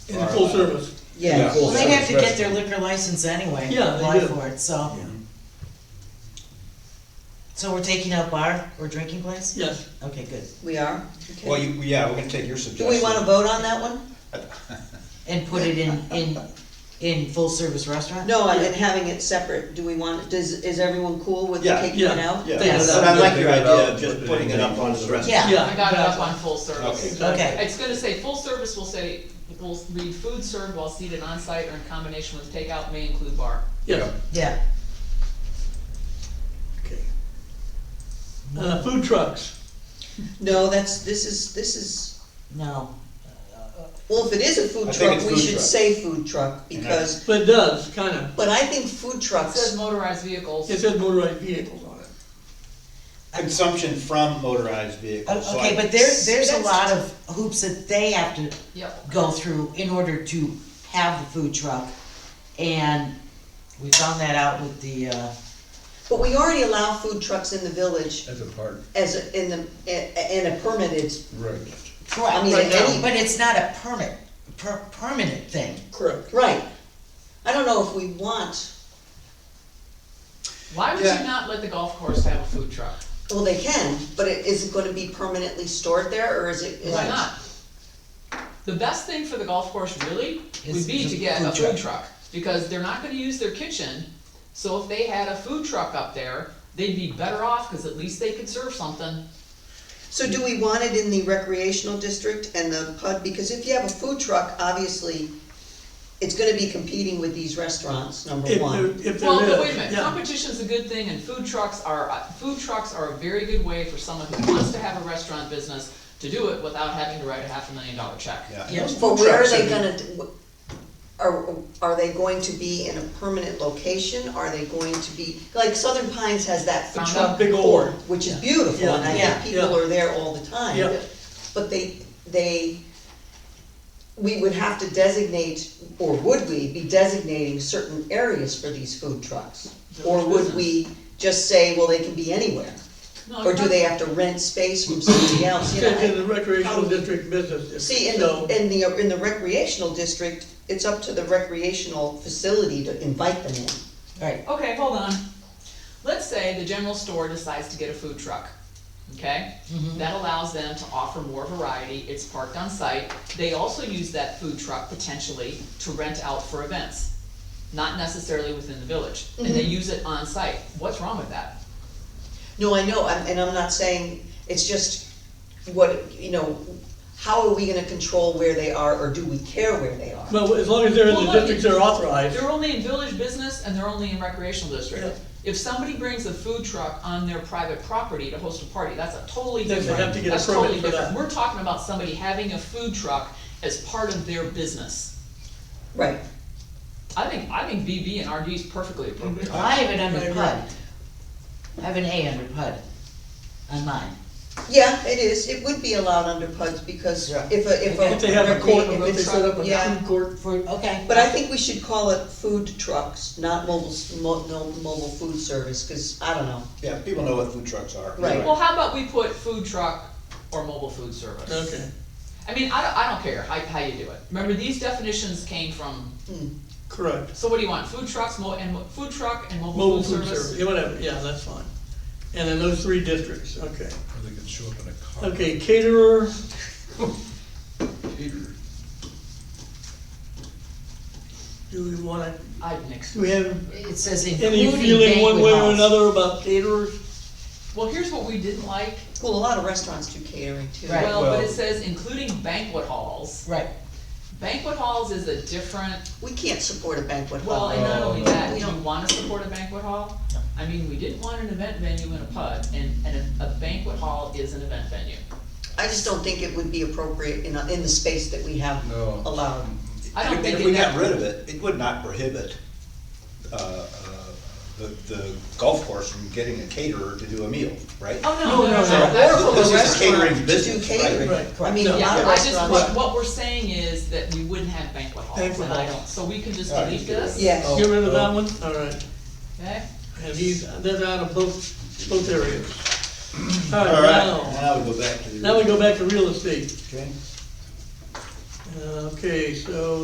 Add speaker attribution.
Speaker 1: in the full service.
Speaker 2: Yeah,
Speaker 3: Yeah.
Speaker 2: well,
Speaker 4: Well, they'd have to get
Speaker 3: Rest-
Speaker 4: their liquor license anyway,
Speaker 1: Yeah, they
Speaker 4: apply
Speaker 1: do.
Speaker 4: for it, so. So we're taking out bar or drinking place?
Speaker 1: Yes,
Speaker 4: Okay, good.
Speaker 2: we are? Okay.
Speaker 3: Well, you, yeah, we're gonna take your
Speaker 2: Do
Speaker 3: suggestion.
Speaker 2: we wanna vote on that one?
Speaker 4: And put it in, in, in full-service restaurant?
Speaker 2: No, and then having it separate, do we want, does, is everyone cool with
Speaker 3: Yeah,
Speaker 2: taking
Speaker 1: yeah,
Speaker 2: it out?
Speaker 3: Yeah,
Speaker 1: Yes.
Speaker 3: but I like your
Speaker 5: Figure it
Speaker 3: idea
Speaker 5: out,
Speaker 3: of just
Speaker 5: put it
Speaker 3: putting
Speaker 5: in
Speaker 3: it up
Speaker 5: the-
Speaker 3: on the rest.
Speaker 4: Yeah.
Speaker 1: yeah.
Speaker 6: I got it up on full service.
Speaker 3: Okay.
Speaker 4: Okay,
Speaker 6: It's gonna say, full service will say, will read food served while seated on site or in combination with takeout may include bar.
Speaker 1: Yes.
Speaker 4: yeah,
Speaker 3: Okay.
Speaker 1: Uh, food trucks,
Speaker 2: No, that's, this is, this is,
Speaker 4: no.
Speaker 2: well, if it is a food
Speaker 3: I think
Speaker 2: truck,
Speaker 3: it's
Speaker 2: we
Speaker 3: food
Speaker 2: should
Speaker 3: truck.
Speaker 2: say food truck, because,
Speaker 1: but it does, kinda,
Speaker 2: but I think food
Speaker 6: It says
Speaker 2: trucks,
Speaker 6: motorized vehicles.
Speaker 1: it says motorized vehicles on it.
Speaker 3: Consumption from motorized
Speaker 1: Oh,
Speaker 4: O-
Speaker 3: vehicles. so
Speaker 4: Okay,
Speaker 3: I-
Speaker 4: but there, there's a
Speaker 2: That's-
Speaker 4: lot of hoops that they have to
Speaker 6: Yep.
Speaker 4: go through in order to have the food truck. And we found that out with the, uh,
Speaker 2: but we already allow food trucks in the village
Speaker 5: As a part.
Speaker 2: as a, in the, a- in a permitted,
Speaker 5: Right.
Speaker 4: correct,
Speaker 2: I mean,
Speaker 4: but
Speaker 2: any-
Speaker 4: but it's not a permit, per, permanent thing.
Speaker 1: Correct.
Speaker 2: right. I don't know if we want,
Speaker 6: Why would
Speaker 3: Yeah.
Speaker 6: you not let the golf course have a food truck?
Speaker 2: well, they can, but it, is it gonna be permanently stored there, or is it? is
Speaker 6: Why
Speaker 2: it-
Speaker 6: not? The best thing for the golf course really
Speaker 4: Is
Speaker 6: would be
Speaker 4: the
Speaker 6: to get a
Speaker 4: food
Speaker 6: food truck, because they're not gonna use their kitchen. So if they had a food truck up there, they'd be better off, cause at least they could serve something.
Speaker 2: So do we want it in the recreational district and the PUD? Because if you have a food truck, obviously, it's gonna be competing with these restaurants, number
Speaker 1: If there,
Speaker 2: one.
Speaker 1: if there is, yeah.
Speaker 6: Well, but wait a minute, competition's a good thing, and food trucks are, uh, food trucks are a very good way for someone who wants to have a restaurant business to do it without having to write a half a million dollar check.
Speaker 3: Yeah.
Speaker 4: Yeah,
Speaker 3: Those
Speaker 2: But
Speaker 3: food
Speaker 2: where are
Speaker 3: trucks
Speaker 2: they gonna, are, are they going to be in a permanent location? Are they going to be, like Southern Pines has that food
Speaker 6: Found
Speaker 2: truck
Speaker 6: out
Speaker 1: big old-
Speaker 2: court, which is beautiful,
Speaker 1: Yeah,
Speaker 2: and I
Speaker 4: yeah,
Speaker 2: think people
Speaker 1: yeah.
Speaker 2: are there all the time.
Speaker 1: Yeah.
Speaker 2: But they, they, we would have to designate, or would we be designating certain areas for these food trucks? Or would we just say, well, they can be anywhere?
Speaker 1: Oh,
Speaker 6: No,
Speaker 2: Or do they have to rent space from somebody else, you know?
Speaker 1: It's in the recreational district business district,
Speaker 2: See, in the,
Speaker 1: so-
Speaker 2: in the, in the recreational district, it's up to the recreational facility to invite them in.
Speaker 4: Right,
Speaker 6: Okay, hold on. Let's say the general store decides to get a food truck, okay?
Speaker 2: Mm-hmm.
Speaker 6: That allows them to offer more variety, it's parked on site. They also use that food truck potentially to rent out for events, not necessarily within the village. And they
Speaker 2: Mm-hmm.
Speaker 6: use it on site. What's wrong with that?
Speaker 2: No, I know, I'm- and I'm not saying, it's just what, you know, how are we gonna control where they are, or do we care where they are?
Speaker 1: Well, as long as they're in
Speaker 6: Well,
Speaker 1: the
Speaker 6: look,
Speaker 1: districts they're authorized,
Speaker 6: They're only in village business and they're only in recreational
Speaker 1: Yeah.
Speaker 6: district. If somebody brings a food truck on their private property to host a party, that's a totally
Speaker 1: Then they
Speaker 6: different,
Speaker 1: have to get a
Speaker 6: that's
Speaker 1: permit
Speaker 6: totally
Speaker 1: for
Speaker 6: different.
Speaker 1: that.
Speaker 6: We're talking about somebody having a food truck as part of their business.
Speaker 2: Right,
Speaker 6: I think, I think BB and RD is perfectly
Speaker 1: Mm-hmm.
Speaker 6: appropriate.
Speaker 4: Well, I have it under
Speaker 1: Right,
Speaker 4: PUD. I have an A under PUD on mine.
Speaker 2: yeah, it is, it would be allowed under PUDs, because
Speaker 3: Yeah.
Speaker 2: if a, if a.
Speaker 1: if they have a court,
Speaker 2: recre-
Speaker 1: or
Speaker 2: if
Speaker 1: if they
Speaker 2: it's
Speaker 1: set up a
Speaker 2: yeah.
Speaker 1: food court,
Speaker 4: For, okay.
Speaker 2: But I think we should call it food trucks, not mobile, s- mo- no, mobile food service, cause I don't know.
Speaker 3: Yeah, people know what food trucks are.
Speaker 2: Right.
Speaker 6: Well, how about we put food truck or mobile food service?
Speaker 1: okay,
Speaker 6: I mean, I don't, I don't care how, how you do it. Remember, these definitions came from,
Speaker 1: correct.
Speaker 6: so what do you want, food trucks, mo, and, mo- food truck and
Speaker 1: Mobile food service, yeah, whatever, yeah, that's fine. And in those three districts, okay.
Speaker 5: Or they could show up in a car.
Speaker 1: Okay, caterer,
Speaker 5: Peter.
Speaker 1: do we wanna,
Speaker 6: I'd nix.
Speaker 1: do we have
Speaker 4: It says
Speaker 1: any
Speaker 4: including
Speaker 1: feeling one
Speaker 4: banquet
Speaker 1: way or
Speaker 4: halls.
Speaker 1: another about caterers?
Speaker 6: Well, here's what we didn't like,
Speaker 2: Well, a lot of restaurants do catering too.
Speaker 4: Right.
Speaker 6: Well, but it
Speaker 5: Well-
Speaker 6: says including banquet halls.
Speaker 4: Right,
Speaker 6: Banquet halls is a different,
Speaker 2: We can't support a banquet
Speaker 6: well,
Speaker 2: hall.
Speaker 6: and not only
Speaker 3: Uh,
Speaker 5: Oh.
Speaker 6: that, do you wanna support a banquet hall? I mean, we didn't want an event venue in a PUD, and, and a a banquet hall is an event venue.
Speaker 2: I just don't think it would be appropriate in, a- in the space that we have
Speaker 5: No.
Speaker 2: allowed.
Speaker 6: I don't think
Speaker 3: If
Speaker 6: it.
Speaker 3: we got rid of it, it would not prohibit, uh, uh, the, the golf course from getting a caterer to do a meal, right?
Speaker 6: Oh, no, no, no,
Speaker 1: no,
Speaker 6: no,
Speaker 1: no.
Speaker 2: Or
Speaker 6: that's,
Speaker 3: This is
Speaker 2: for the
Speaker 3: catering
Speaker 2: restaurant to do
Speaker 3: business, right?
Speaker 2: catering.
Speaker 1: Right,
Speaker 2: I mean, a
Speaker 1: correct.
Speaker 2: lot
Speaker 6: yeah,
Speaker 2: of
Speaker 6: I just, what,
Speaker 2: restaurants.
Speaker 6: what we're saying is that we wouldn't have banquet halls,
Speaker 1: Banquet
Speaker 6: and I
Speaker 1: halls.
Speaker 6: don't, so we can just
Speaker 3: All right,
Speaker 6: delete
Speaker 3: get rid of
Speaker 6: this, okay?
Speaker 4: Oh,
Speaker 2: Yes,
Speaker 1: Get rid of that one, all right.
Speaker 6: Yeah.
Speaker 1: And he's, that's out of both, both areas. All
Speaker 3: All
Speaker 1: right,
Speaker 3: right,
Speaker 1: now,
Speaker 3: now we go back to the.
Speaker 1: now we go back to real estate.
Speaker 3: Okay.
Speaker 1: Uh, Okay, so